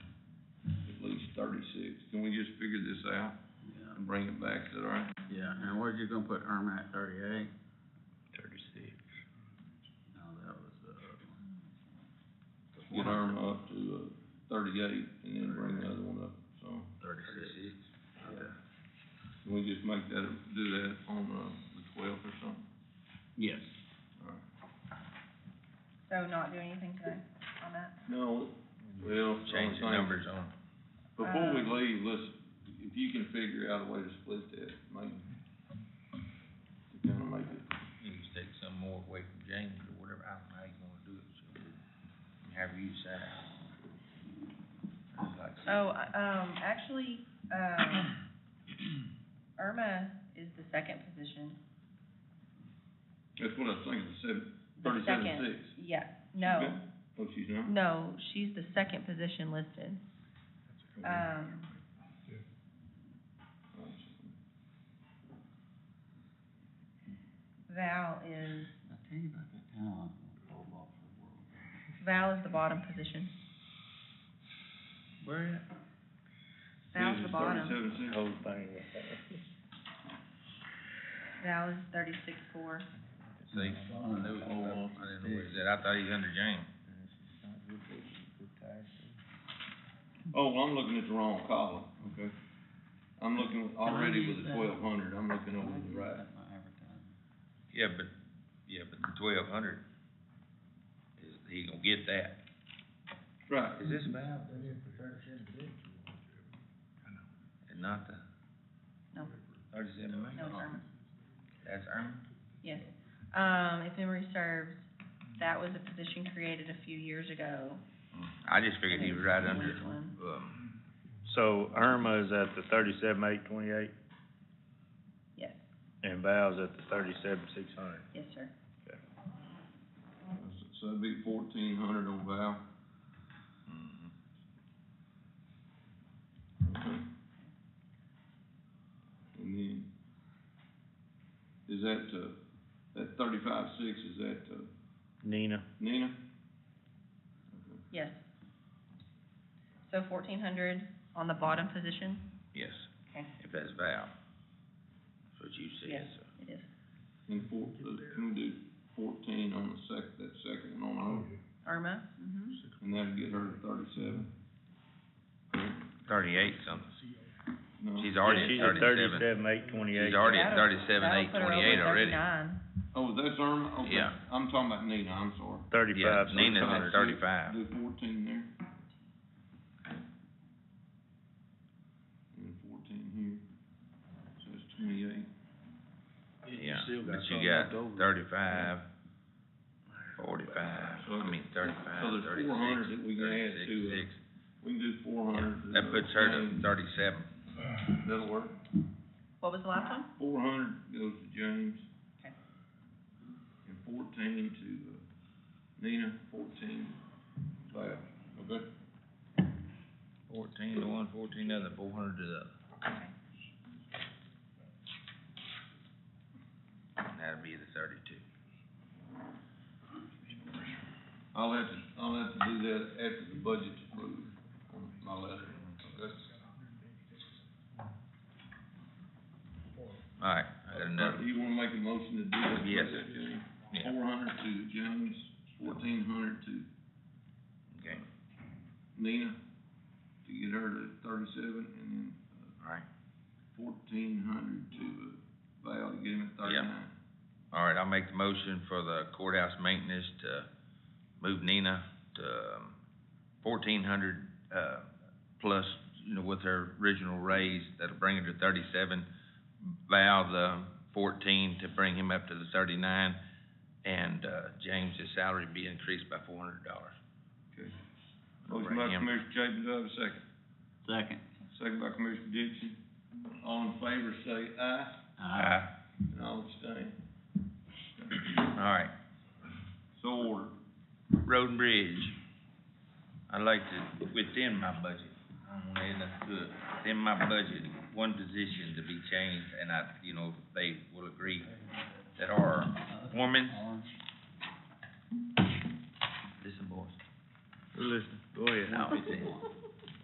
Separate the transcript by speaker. Speaker 1: thirty-six. Can we just figure this out
Speaker 2: Yeah,
Speaker 1: and bring it back, is that all right?
Speaker 2: yeah, and where'd you gonna put Irma at thirty-eight?
Speaker 3: Thirty-six.
Speaker 2: No, that was the other one.
Speaker 1: Get Irma up to, uh, thirty-eight and then bring the other one up, so.
Speaker 2: Thirty-six. Okay.
Speaker 1: Can we just make that, do that on, uh, the twelfth or something?
Speaker 2: Yes.
Speaker 1: All right.
Speaker 4: So not do anything today on that?
Speaker 1: No, well,
Speaker 3: Change the numbers on.
Speaker 1: Before we
Speaker 4: Um,
Speaker 1: leave, let's, if you can figure out a way to split that, maybe. To kinda make it,
Speaker 3: You just take some more away from James or whatever, I don't know how you wanna do it, so, however you decide. I'd like to-
Speaker 4: Oh, I- um, actually, um, Irma is the second position.
Speaker 1: that's what I was thinking, seven,
Speaker 4: The
Speaker 1: thirty-seven
Speaker 4: second-
Speaker 1: six.
Speaker 4: Yeah, no,
Speaker 1: Oh, she's not?
Speaker 4: no, she's the second position listed. Um, Val is,
Speaker 2: I tell you about that time I was gonna pull off the world.
Speaker 4: Val is the bottom position.
Speaker 3: Where?
Speaker 4: Val's the bottom.
Speaker 1: Thirty-seven six.
Speaker 3: Whole thing.
Speaker 4: Val is thirty-six four.
Speaker 3: See, I knew it, I didn't know where he's at, I thought he was under James.
Speaker 1: Oh, well, I'm looking at the wrong column. Okay. I'm looking already with the
Speaker 2: Can I use
Speaker 1: twelve hundred, I'm looking over to the
Speaker 2: Right.
Speaker 1: right.
Speaker 2: my advertising.
Speaker 3: Yeah, but, yeah, but the twelve hundred, is, he gonna get that.
Speaker 1: Right.
Speaker 3: Is this Val? And not the?
Speaker 4: No.
Speaker 3: Thirty-seven million?
Speaker 4: No, Irma.
Speaker 3: That's Irma?
Speaker 4: Yes. Um, if memory serves, that was a position created a few years ago.
Speaker 3: Mm. I just figured he was right under,
Speaker 4: Which one?
Speaker 3: um,
Speaker 5: So Irma is at the thirty-seven, eight twenty-eight,
Speaker 4: Yes,
Speaker 5: and Val's at the thirty-seven, six hundred.
Speaker 4: yes, sir.
Speaker 1: So that'd be fourteen hundred on Val.
Speaker 3: mhm.
Speaker 1: Okay. And then, is that, uh, that thirty-five six, is that, uh,
Speaker 5: Nina,
Speaker 1: Nina?
Speaker 4: Yes. So fourteen hundred on the bottom position?
Speaker 3: yes,
Speaker 4: Okay.
Speaker 3: if that's Val. That's what you said,
Speaker 4: Yes.
Speaker 3: so.
Speaker 4: It is.
Speaker 1: And four, uh, can we do fourteen on the sec, that second one on her?
Speaker 4: Irma? Mm-hmm.
Speaker 1: And that'd get her to thirty-seven?
Speaker 3: Thirty-eight something,
Speaker 1: No.
Speaker 3: she's already
Speaker 5: she's
Speaker 3: at
Speaker 5: at
Speaker 3: thirty-seven,
Speaker 5: thirty-seven, eight twenty-eight.
Speaker 3: she's already at thirty-seven, eight twenty-eight already.
Speaker 1: Oh, that's Irma? Okay.
Speaker 3: Yeah.
Speaker 1: I'm talking about Nina, I'm sorry.
Speaker 5: Thirty-five,
Speaker 3: Yeah, Nina's
Speaker 1: Sorry,
Speaker 3: at
Speaker 1: do-
Speaker 3: thirty-five,
Speaker 1: Do fourteen there. And fourteen here, so that's twenty-eight.
Speaker 3: yeah, but you got thirty-five, forty-five,
Speaker 1: So
Speaker 3: I mean thirty-five,
Speaker 1: so there's
Speaker 3: thirty-six,
Speaker 1: 400 that we can add
Speaker 3: thirty-six,
Speaker 1: to it.
Speaker 3: six.
Speaker 1: We can do four
Speaker 3: Yeah,
Speaker 1: hundred.
Speaker 3: That puts her to thirty-seven.
Speaker 1: That'll work.
Speaker 4: What was the last one?
Speaker 1: Four hundred goes to James.
Speaker 4: Okay.
Speaker 1: And fourteen to, uh, Nina, fourteen, Val, okay?
Speaker 3: Fourteen to one, fourteen to the other, four hundred to the other. And that'd be the thirty-two.
Speaker 1: I'll have to, I'll have to do that after the budget's approved on my letter, okay?
Speaker 3: Alright, I got another,
Speaker 1: Do you wanna make a motion to do that?
Speaker 3: Yes. yeah,
Speaker 1: Four hundred to James, fourteen hundred to
Speaker 3: okay,
Speaker 1: Nina, to get her to thirty-seven, and then
Speaker 3: alright.
Speaker 1: fourteen hundred to uh, Val, to get him at thirty-nine.
Speaker 3: Alright, I'll make the motion for the courthouse maintenance to move Nina to um, fourteen hundred, uh, plus, you know, with her original raise, that'll bring her to thirty-seven. Val the fourteen to bring him up to the thirty-nine, and, uh, James' salary be increased by four hundred dollars.
Speaker 1: Okay. Motion by Commissioner Chapin, do I have a second?
Speaker 2: Second.
Speaker 1: Second by Commissioner Dixon. All in favor, say aye,
Speaker 2: Aye.
Speaker 1: and all abstain.
Speaker 3: Alright,
Speaker 1: So ordered.
Speaker 3: Road and Bridge. I'd like to, within my budget, I don't wanna add nothing to it, within my budget, one position to be changed, and I, you know, they will agree, that are
Speaker 2: Oh,
Speaker 3: foreman,
Speaker 2: Orange.
Speaker 3: listen boys,
Speaker 5: Listen, go ahead.
Speaker 3: no, it's in,